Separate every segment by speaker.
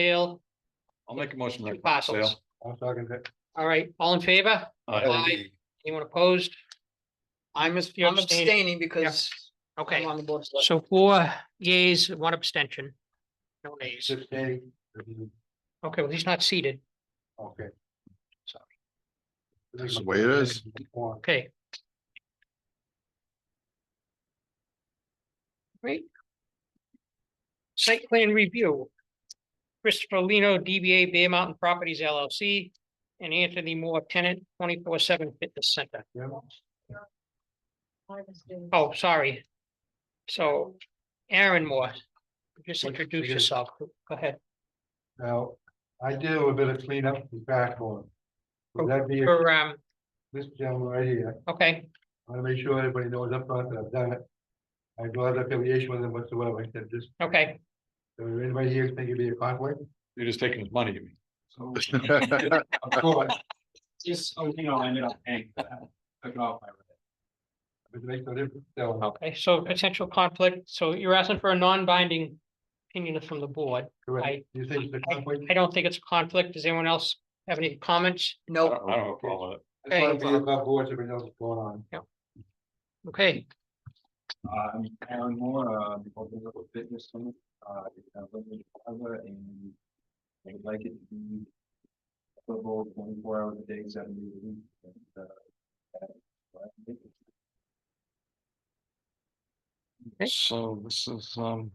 Speaker 1: sale,
Speaker 2: I'll make a motion.
Speaker 1: two
Speaker 2: like
Speaker 1: parcels.
Speaker 2: sale. Uh, E
Speaker 3: I'm talking to.
Speaker 1: All right, all in favor? Aye. Anyone opposed?
Speaker 4: I'm as-
Speaker 1: You're
Speaker 4: I'm
Speaker 1: abstaining.
Speaker 4: abstaining because I'm
Speaker 1: Okay,
Speaker 4: on the board. of select-
Speaker 1: so four yays, one abstention. No nays.
Speaker 3: Six day.
Speaker 1: Okay, well, he's not seated.
Speaker 3: Okay.
Speaker 1: Sorry.
Speaker 3: That's
Speaker 5: the way it is.
Speaker 1: Okay,
Speaker 4: Great.
Speaker 1: site plan review. Christopher Lino, DBA Bear Mountain Properties LLC, and Anthony Moore, tenant, twenty-four seven fitness center. Oh, sorry. So Aaron Moore, just
Speaker 3: What-
Speaker 1: introduce yourself. Go ahead.
Speaker 3: Now, I do a bit of cleanup in back one. Would that be
Speaker 1: For, um,
Speaker 3: this gentleman right here?
Speaker 1: okay,
Speaker 3: I wanna make sure everybody knows up front that I've done it. I have no other affiliation with them whatsoever. I said, just,
Speaker 1: okay.
Speaker 3: if anybody here think it'd be a conflict?
Speaker 2: You're just taking his money, you mean?
Speaker 6: So,
Speaker 3: Of course,
Speaker 6: just, oh, you know, I ended up paying, for that. took it off my.
Speaker 3: It makes no difference. So,
Speaker 1: Okay, so potential conflict, so you're asking for a non-binding opinion from the board. I-
Speaker 3: correct. You think it's a conflict?
Speaker 1: I don't think it's a conflict. Does anyone else have any comments?
Speaker 2: I
Speaker 4: Nope.
Speaker 2: don't I don't have a problem with it.
Speaker 3: It's
Speaker 1: Okay.
Speaker 3: gonna be above uh, board, so everybody knows what's going on.
Speaker 1: Okay,
Speaker 6: Uh, I'm Aaron Moore, uh, the open up a fitness clinic, uh, it's a limited cover and I would like it to be available twenty-four hours a day, seven days a week. and, uh, that-
Speaker 1: Okay.
Speaker 2: So this is, um,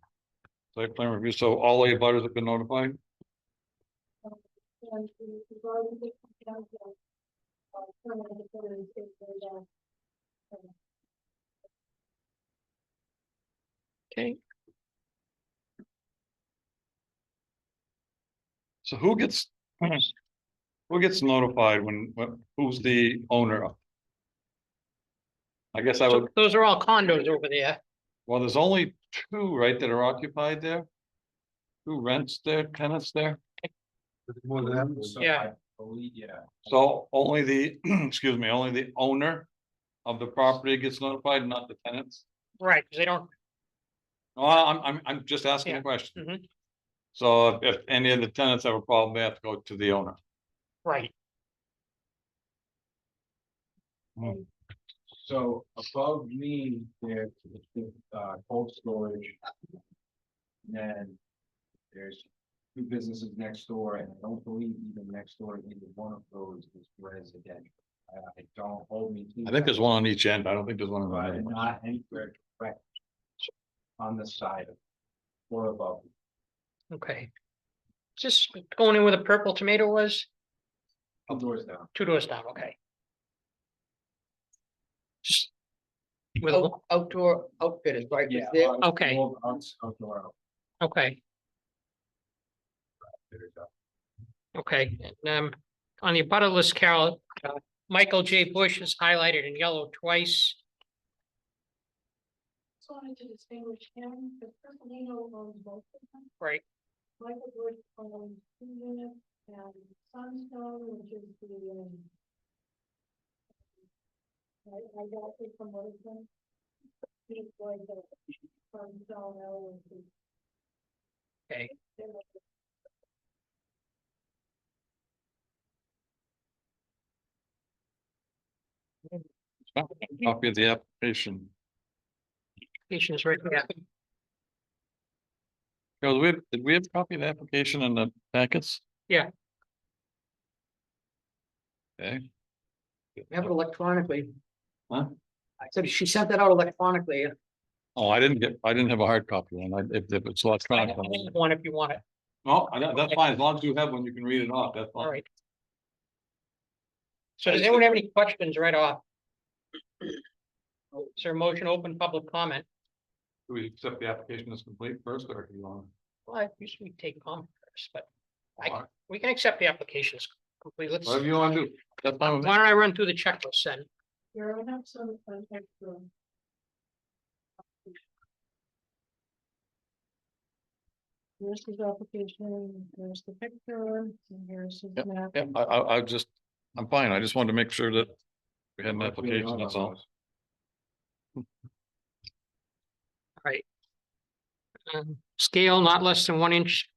Speaker 2: site plan review, so all the abutters have been notified?
Speaker 7: And we regarding the compound of, uh, permanent employees, if they're down.
Speaker 2: So who gets? Who gets notified when, when- who's the owner? I guess I
Speaker 1: so
Speaker 2: would,
Speaker 1: those are all condos over there.
Speaker 2: well, there's only two, right, that are occupied there? Who rents their tenants there?
Speaker 3: It's more than that.
Speaker 6: So
Speaker 1: Yeah.
Speaker 6: I believe- yeah.
Speaker 2: So only the, excuse me, only the owner of the property gets notified, not the tenants?
Speaker 1: Right, because they don't,
Speaker 2: No, I- I'm, I'm, I'm just asking a
Speaker 1: Yeah.
Speaker 2: question.
Speaker 1: Mhm.
Speaker 2: So if- if any of the tenants have a problem, they have to go to the owner.
Speaker 1: right,
Speaker 6: So above me, there's, uh, cold storage. And Then there's two businesses next door, and I don't believe even next door, to either one of those is residential. I, I don't hold me. to
Speaker 2: I think
Speaker 6: that,
Speaker 2: there's one on each end. I don't think there's one on the
Speaker 6: But
Speaker 2: other.
Speaker 6: not anywhere direct on the side of or above.
Speaker 1: okay. Just going in where the purple tomato was,
Speaker 6: Two doors down.
Speaker 1: two doors down, okay. Just With, a
Speaker 2: Oh.
Speaker 4: Out- Outdoor outfitters, right?
Speaker 6: Yeah.
Speaker 4: There-
Speaker 6: out-
Speaker 1: Okay.
Speaker 6: out- Outdoor.
Speaker 1: okay,
Speaker 6: outfitters, uh,
Speaker 1: okay, and, um, on the abutter list, Carol, uh, Michael J. Bush is highlighted in yellow twice.
Speaker 7: Just wanted to distinguish him, because Personino owns both of them.
Speaker 1: Right.
Speaker 7: Michael Bush owns two units and Sunstone, which is the, um. I, I got it from one of them. He's like the Sunstone L.
Speaker 1: Okay.
Speaker 2: Copy of the application.
Speaker 1: Patients right there.
Speaker 2: Carol, do we, have- did we have a copy of the application in the packets?
Speaker 1: Yeah.
Speaker 2: Okay.
Speaker 4: We Have it electronically.
Speaker 2: Huh?
Speaker 4: I said she sent that out electronically.
Speaker 2: Oh, I didn't get, I didn't have a hard copy and I, if, if it's
Speaker 1: I
Speaker 2: electronic.
Speaker 1: have One if you want it,
Speaker 2: No, I don't- that's fine. As long as you have one, you can read it off. That's
Speaker 1: all
Speaker 2: fine.
Speaker 1: right. So does anyone have any questions right off? Is there a motion open public comment?
Speaker 2: Do we accept the application as complete first or do you want?
Speaker 1: Well, I usually take comment first, but I,
Speaker 2: Alright.
Speaker 1: we can accept the applications completely. Let's,
Speaker 2: Whatever
Speaker 1: why
Speaker 2: you want to do. That's fine with me.
Speaker 1: don't I run through the checklist then?
Speaker 7: There are not some, uh, extra. Here's his application, there's the picture, and here's his map.
Speaker 2: Yeah, I, I, I just, I'm fine. I just wanted to make sure that we had an application, that's all.
Speaker 1: Um, Scale not less than one inch